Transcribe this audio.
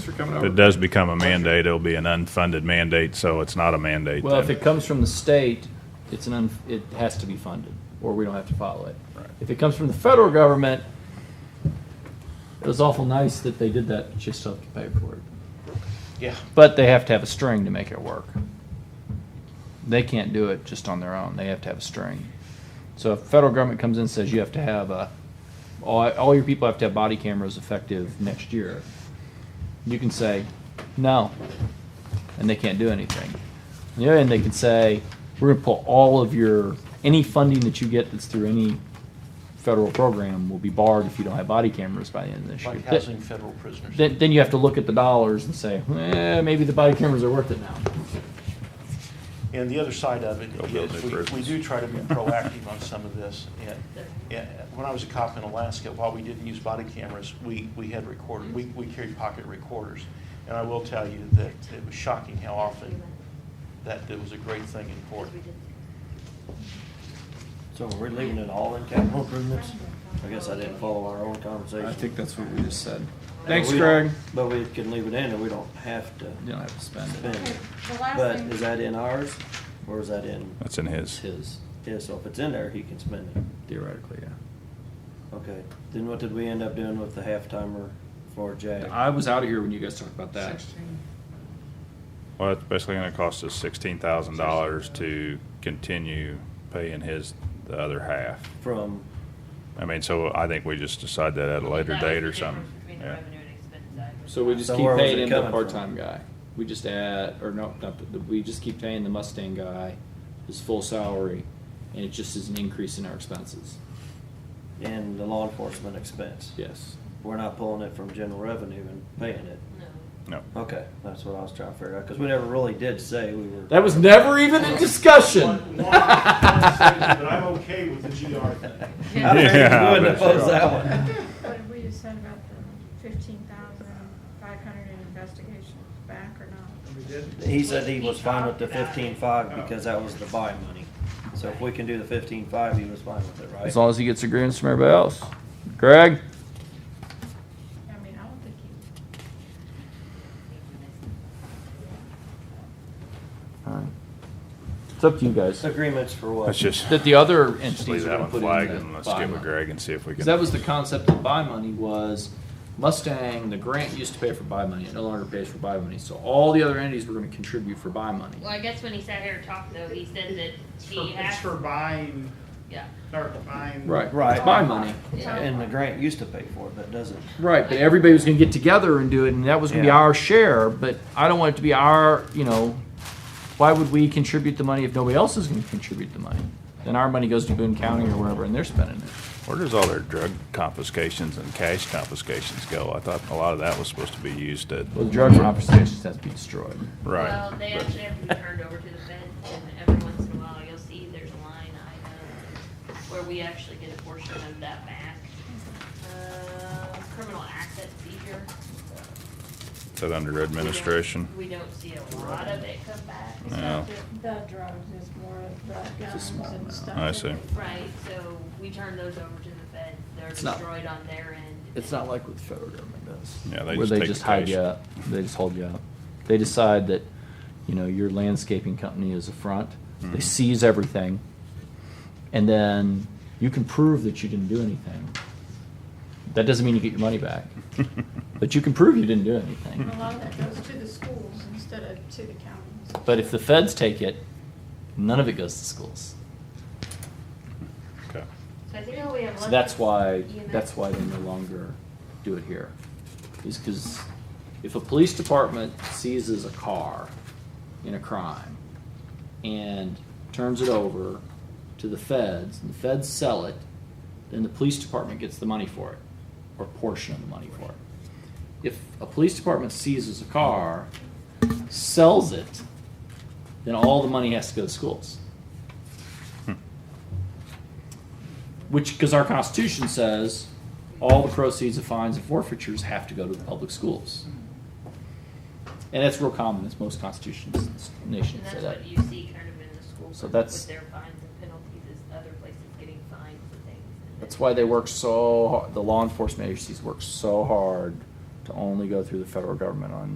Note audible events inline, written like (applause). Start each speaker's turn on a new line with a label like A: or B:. A: Mr. coming
B: If it
A: over?
B: does become a mandate, it'll be an unfunded mandate, so it's not a mandate
C: Well, if
B: then.
C: it comes from the state, it's an, un- it has to be funded, or we don't have to follow it. If it comes from the federal government, it was awful nice that they did that, but you still have to pay for it. Yeah. But they have to have a string to make it work. They can't do it just on their own, they have to have a string. So if federal government comes in and says you have to have a, all, all your people have to have body cameras effective next year, you can say, no, and they can't do anything. On the other hand, they can say, we're gonna pull all of your, any funding that you get that's through any federal program will be barred if you don't have body cameras by the end of this year.
D: Like housing federal prisoners.
C: Then, then you have to look at the dollars and say, eh, maybe the body cameras are worth it now.
D: And the other side of it
B: Go build
D: is,
B: new
D: we, we
B: prisons.
D: do try to be proactive on some of this. And, and when I was a cop in Alaska, while we didn't use body cameras, we, we had recorded, we, we carried pocket recorders. And I will tell you that it was shocking how often that, that was a great thing in court.
E: So we're leaving it all in capital improvements? I guess I didn't follow our own conversation.
A: I think that's what we just said.
E: But
C: Thanks,
E: we don't-
C: Greg.
E: But we can leave it in and we don't have to
C: You don't have to spend it.
E: spend it.
F: The last
E: But
F: thing-
E: is that in ours or is that in,
B: That's in
C: It's
B: his.
C: his,
E: yeah, so if it's in there, he can spend it.
C: theoretically, yeah.
E: Okay, then what did we end up doing with the half timer for JAG?
C: I was out of here when you guys talked about that.
B: Well, it's basically gonna cost us sixteen thousand dollars to continue paying his, the other half.
E: From,
B: I mean, so I think we just decide that at a later
F: That was the
B: date or
F: difference
B: something.
F: between the
B: Yeah.
F: revenue and expense side.
C: So we just
E: So
C: keep
E: where was
C: paying
E: it
C: him the
E: coming from?
C: part-time guy. We just add, or no, not the, the- we just keep paying the Mustang guy his full salary, and it just is an increase in our expenses.
E: in the law enforcement expense?
C: Yes.
E: We're not pulling it from general revenue and paying it?
F: No.
B: No.
E: Okay, that's what I was trying to figure out, because we never really did say we were.
C: That was never even in discussion.
D: (laughs) But I'm okay with the GR thing.
E: I figured
B: Yeah, I
E: you wouldn't
B: bet you
E: oppose
B: are.
E: that one.
G: What did we decide about the fifteen thousand five hundred in investigation back or not?
E: He said he was fine with the fifteen-five because that was the buy money. So if we can do the fifteen-five, he was fine with it, right?
C: As long as he gets agreements from everybody else. Greg?
G: I mean, I don't think you,
C: It's up to you guys.
E: Agreements for what?
B: Let's just
C: That the other
B: just leave
C: entities
B: that
C: are gonna
B: one
C: put in
B: flagged
C: the
B: and let's
C: buy
B: get with
C: money.
B: Greg and see if we can.
C: Because that was the concept of buy money was Mustang, the grant used to pay for buy money, it no longer pays for buy money. So all the other entities were gonna contribute for buy money.
F: Well, I guess when he sat here and talked though, he said that
H: It's for-
F: he
H: It's for
F: has,
H: buying,
F: yeah.
H: or buying.
E: Right.
C: It's buy money.
E: And the grant used to pay for it, but doesn't.
C: Right, but everybody was gonna get together and do it, and that was gonna be
E: Yeah.
C: our share, but I don't want it to be our, you know, why would we contribute the money if nobody else is gonna contribute the money? Then our money goes to Boone County or wherever, and they're spending it.
B: Where does all their drug confiscations and cash confiscations go? I thought a lot of that was supposed to be used to.
C: Well, the drug confiscations has to be destroyed.
B: Right.
F: Well, they
B: but-
F: actually have to be turned over to the feds and every once in a while you'll see there's a line item where we actually get a portion of that back. Uh, criminal asset seizure.
B: Is that under administration?
F: We don't see a lot of it come back.
G: it's
B: No.
G: not the, the drugs, it's more of the
C: It's a
G: guns
C: small
G: and
C: amount.
G: stuff.
B: I
G: that
B: see.
G: they-
F: Right, so we turn those over to the feds, they're
C: It's not-
F: destroyed on their end.
C: It's not like what the federal government does.
B: Yeah, they
C: Where
B: just
C: they
B: take
C: just
B: the
C: hide
B: cash.
C: you up, they just hold you up. They decide that, you know, your landscaping company is a front, they
B: Mhm.
C: seize everything, and then you can prove that you didn't do anything. That doesn't mean you get your money back, (laughs) but you can prove you didn't do anything.
B: Mm-hmm.
G: A lot of that goes to the schools instead of to the counties.
C: But if the feds take it, none of it goes to schools.
B: Okay.
F: So I think all we have left.
C: So that's
F: is E
C: why,
F: EMS.
C: that's why they no longer do it here. Is because if a police department seizes a car in a crime and turns it over to the feds, and the feds sell it, then the police department gets the money for it, or a portion of the money for it. If a police department seizes a car, sells it, then all the money has to go to schools. Which, because our constitution says all the proceeds of fines and forfeitures have to go to the public schools. And that's real common, it's most constitutions,
F: And
C: nations say
F: that's
C: that.
F: what you see kind of in the schools
C: So that's-
F: with their fines and penalties is other places getting fined for things. and
C: That's
F: then-
C: why they work so, har- the law enforcement agencies work so hard to only go through the federal government on